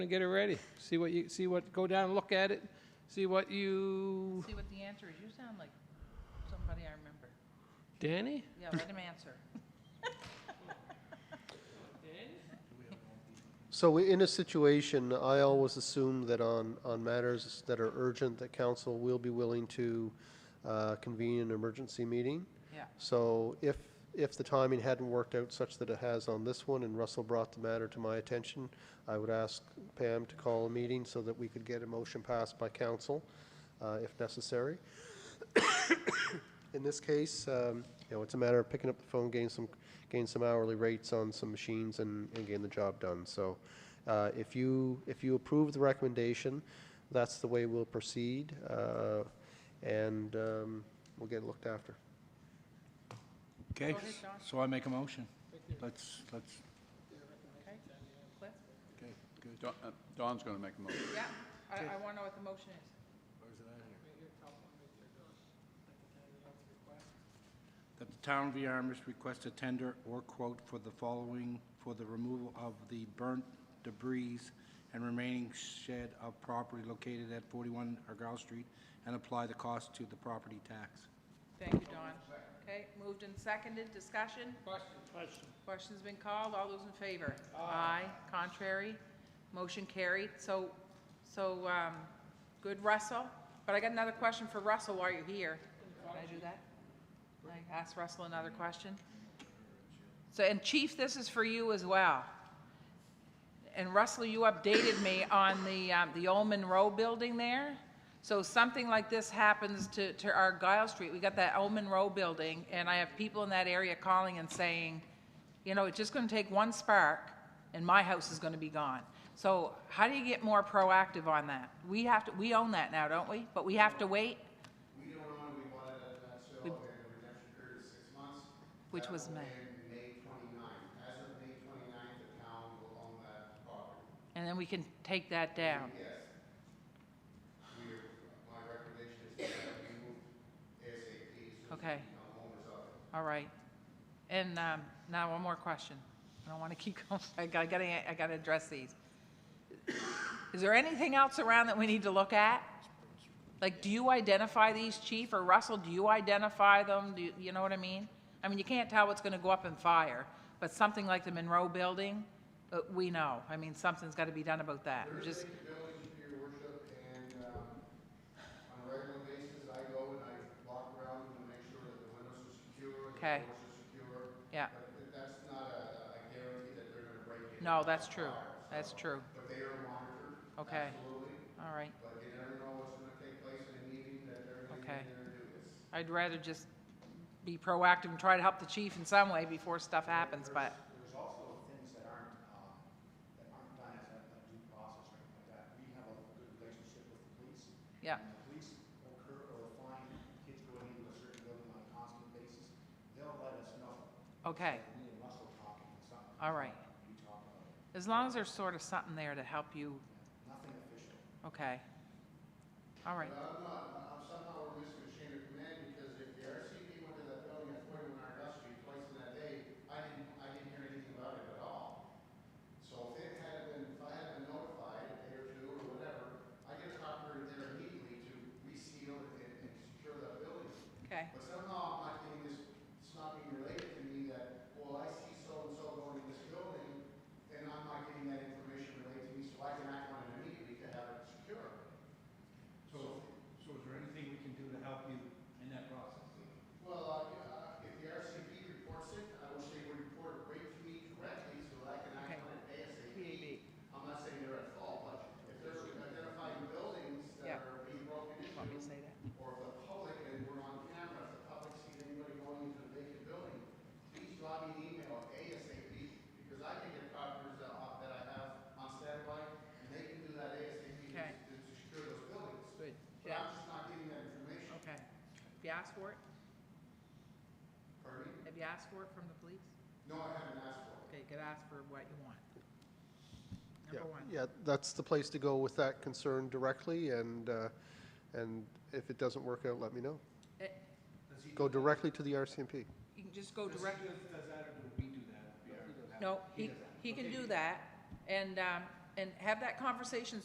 and get it ready. See what you, see what, go down and look at it, see what you, See what the answer is. You sound like somebody I remember. Danny? Yeah, let him answer. So in a situation, I always assume that on, on matters that are urgent, that council will be willing to uh, convene an emergency meeting. Yeah. So if, if the timing hadn't worked out such that it has on this one, and Russell brought the matter to my attention, I would ask Pam to call a meeting so that we could get a motion passed by council, uh, if necessary. In this case, um, you know, it's a matter of picking up the phone, gain some, gain some hourly rates on some machines and, and getting the job done. So, uh, if you, if you approve the recommendation, that's the way we'll proceed, uh, and, um, we'll get it looked after. Okay, Go ahead, John. so I make a motion. Let's, let's, Okay? Cliff? okay, good. Don- uh, Don's going to make a motion. Yeah, I, I want to know what the motion is. That the town of Yarmouth request a tender or quote for the following, for the removal of the burnt debris and remaining shed of property located at 41 Argyle Street and apply the cost to the property tax. Thank you, Don. Okay, moved and seconded, discussion? Question. Question's been called, all those in favor? Aye. contrary, motion carried, so, so, um, good Russell, but I got another question for Russell while you're here. Can I do that? Can I ask Russell another question? So, and Chief, this is for you as well. And Russell, you updated me on the, um, the old Monroe building there. So something like this happens to, to our Guile Street. We got that old Monroe building, and I have people in that area calling and saying, you know, it's just gonna take one spark, and my house is gonna be gone. So how do you get more proactive on that? We have to, we own that now, don't we? But we have to wait? We don't own, we bought it at uh, show, We- we had a redemption period of six months. Which That was will May. end May 29th. As of May 29th, the town will own that property. And then we can take that down. Yes. We, my recommendation is that we move ASAP, so Okay, the homeowners of it. all right. And, um, now one more question. I don't wanna keep going. I gotta, gotta, I gotta address these. Is there anything else around that we need to look at? Like, do you identify these, chief, or Russell, do you identify them? Do you, you know what I mean? I mean, you can't tell what's gonna go up in fire, but something like the Monroe building, uh, we know. I mean, something's gotta be done about that. Just, Village, your worship, and, um, on a regular basis, I go and I walk around to make sure that the windows are secure, the Okay. doors are secure. yeah, But that's not a a guarantee that they're gonna break in. no, that's true. That's true. But they are monitored, Okay, absolutely. all right. But you never know what's gonna take place in a meeting that they're gonna Okay. get in there and do this. I'd rather just be proactive and try to help the chief in some way before stuff happens, but, There's also things that aren't, um, that aren't done as a a due process or anything like that. We have a good relationship with the police. And yeah, the police will cur, or find kids going into a certain building on a constant basis. They'll let us know. okay, Me and Russell talking, it's not, all right. you talk about it. As long as there's sort of something there to help you, Nothing official. okay. All right, But I'm not, I'm somehow we're missing a chain of command, because if the RCP went to that building at forty-one Argyle Street twice in that day, I didn't, I didn't hear anything about it at all. So if it had been, if I had been notified a day or two or whatever, I get a copy there immediately to reseal and, and secure that building. okay, But somehow I'm not getting this, it's not being related to me that, well, I see so-and-so going in this building, and I'm not getting that information related to me, so I can act on it immediately to have it secure. So, so is there anything we can do to help you in that process? Well, uh, if the RCP reports it, I wish they would report it right to me directly so that I can act on it ASAP. I'm not saying they're at fault, but if they're identifying buildings Yeah. that are being broken want me to into, say that? or if the public, and we're on camera, if the public sees anybody going into a vacant building, please drop me an email ASAP, because I can get copies that I that I have on standby, and they can do that ASAP to Okay. to secure those buildings. Good, But yeah, I'm just not getting that information. okay. Have you asked for it? Pardon me? Have you asked for it from the police? No, I haven't asked for it. Okay, you could ask for what you want. Yeah, Number one. Yeah, that's the place to go with that concern directly, and, uh, and if it doesn't work out, let me know. Eh, Go directly to the RCMP. You can just go direct. Does that, or do we do that? No, he, he can do that, and, um, and have that conversation